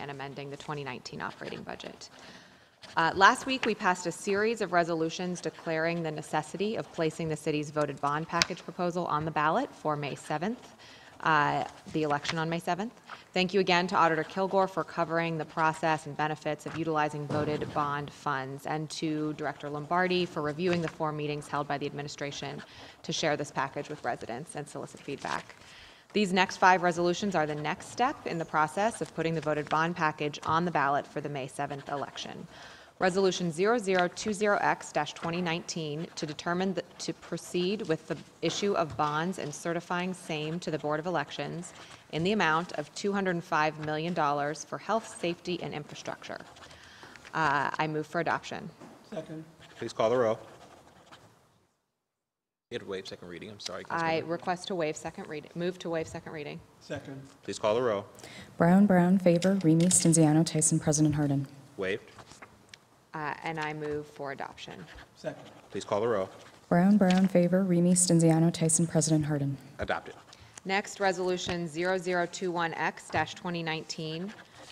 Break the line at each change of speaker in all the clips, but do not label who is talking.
and amending the 2019 operating budget. Uh, Last week, we passed a series of resolutions declaring the necessity of placing the city's voted bond package proposal on the ballot for May 7th, uh, the election on May 7th. Thank you again to Auditor Kilgore for covering the process and benefits of utilizing voted bond funds, and to Director Lombardi for reviewing the four meetings held by the administration to share this package with residents and solicit feedback. These next five resolutions are the next step in the process of putting the voted bond package on the ballot for the May 7th election. Resolution 0020X-2019 to determine, the- to proceed with the issue of bonds and certifying same to the Board of Elections in the amount of $205 million for health, safety, and infrastructure. Uh, I move for adoption.
Second,
Please call the row. You had to waive second reading, I'm sorry.
I
Councilmember.
request to waive second reading, move to waive second reading.
second,
Please call the row.
Brown, Brown, favor, Remy Stenziano Tyson, President Harden.
Waived.
Uh, And I move for adoption.
second,
Please call the row.
Brown, Brown, favor, Remy Stenziano Tyson, President Harden.
Adopted.
Next, Resolution 0021X-2019,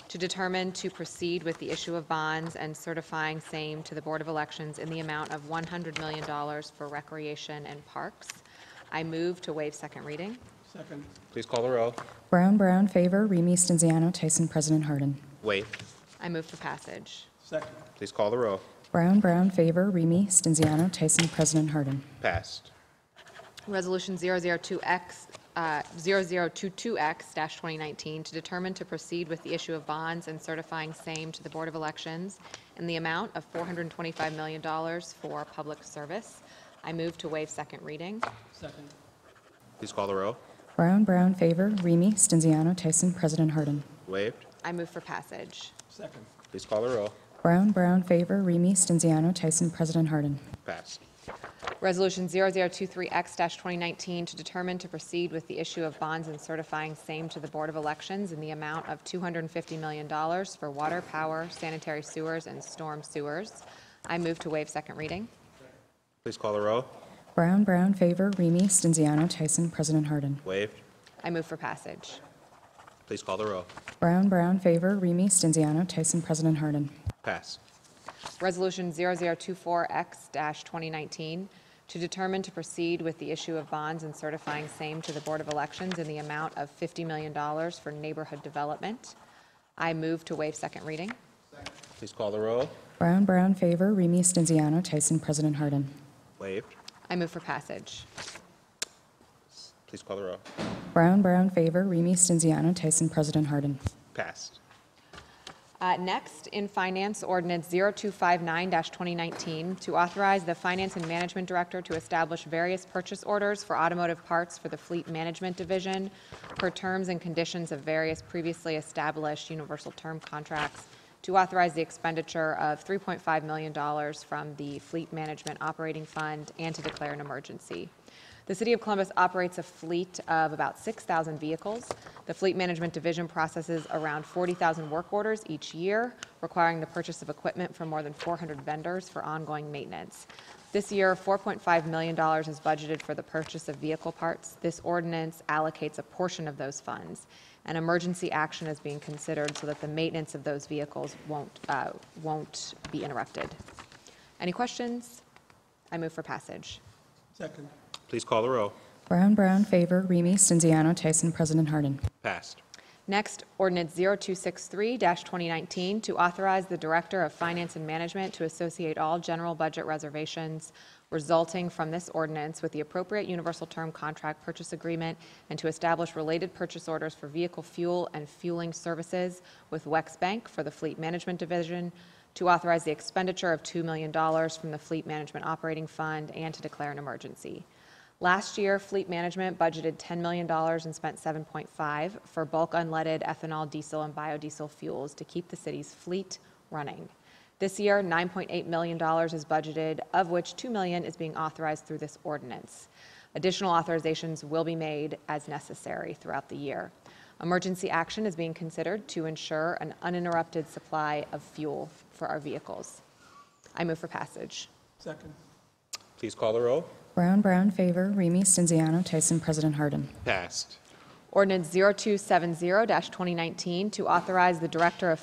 to determine to proceed with the issue of bonds and certifying same to the Board of Elections in the amount of $100 million for recreation and parks. I move to waive second reading.
second,
Please call the row.
Brown, Brown, favor, Remy Stenziano Tyson, President Harden.
Waived.
I move for passage.
second,
Please call the row.
Brown, Brown, favor, Remy Stenziano Tyson, President Harden.
Passed.
Resolution 002X, uh, 0022X-2019, to determine to proceed with the issue of bonds and certifying same to the Board of Elections in the amount of $425 million for public service. I move to waive second reading.
second,
Please call the row.
Brown, Brown, favor, Remy Stenziano Tyson, President Harden.
Waived.
I move for passage.
second,
Please call the row.
Brown, Brown, favor, Remy Stenziano Tyson, President Harden.
Passed.
Resolution 0023X-2019, to determine to proceed with the issue of bonds and certifying same to the Board of Elections in the amount of $250 million for water, power, sanitary sewers, and storm sewers. I move to waive second reading.
Please call the row.
Brown, Brown, favor, Remy Stenziano Tyson, President Harden.
Waived.
I move for passage.
Please call the row.
Brown, Brown, favor, Remy Stenziano Tyson, President Harden.
Passed.
Resolution 0024X-2019, to determine to proceed with the issue of bonds and certifying same to the Board of Elections in the amount of $50 million for neighborhood development. I move to waive second reading.
Please call the row.
Brown, Brown, favor, Remy Stenziano Tyson, President Harden.
Waived.
I move for passage.
Please call the row.
Brown, Brown, favor, Remy Stenziano Tyson, President Harden.
Passed.
Uh, Next, in Finance Ordinance 0259-2019, to authorize the Finance and Management Director to establish various purchase orders for automotive parts for the Fleet Management Division per terms and conditions of various previously established universal term contracts, to authorize the expenditure of $3.5 million from the Fleet Management Operating Fund, and to declare an emergency. The City of Columbus operates a fleet of about 6,000 vehicles. The Fleet Management Division processes around 40,000 work orders each year, requiring the purchase of equipment from more than 400 vendors for ongoing maintenance. This year, $4.5 million is budgeted for the purchase of vehicle parts. This ordinance allocates a portion of those funds. An emergency action is being considered so that the maintenance of those vehicles won't, uh, won't be interrupted. Any questions? I move for passage.
second,
Please call the row.
Brown, Brown, favor, Remy Stenziano Tyson, President Harden.
Passed.
Next, ordinance 0263-2019, to authorize the Director of Finance and Management to associate all general budget reservations resulting from this ordinance with the appropriate universal term contract purchase agreement and to establish related purchase orders for vehicle fuel and fueling services with Wex Bank for the Fleet Management Division, to authorize the expenditure of $2 million from the Fleet Management Operating Fund, and to declare an emergency. Last year, Fleet Management budgeted $10 million and spent 7.5 for bulk unleaded ethanol, diesel, and biodiesel fuels to keep the city's fleet running. This year, $9.8 million is budgeted, of which $2 million is being authorized through this ordinance. Additional authorizations will be made as necessary throughout the year. Emergency action is being considered to ensure an uninterrupted supply of fuel for our vehicles. I move for passage.
second,
Please call the row.
Brown, Brown, favor, Remy Stenziano Tyson, President Harden.
Passed.
Ordinance 0270-2019 to authorize the Director of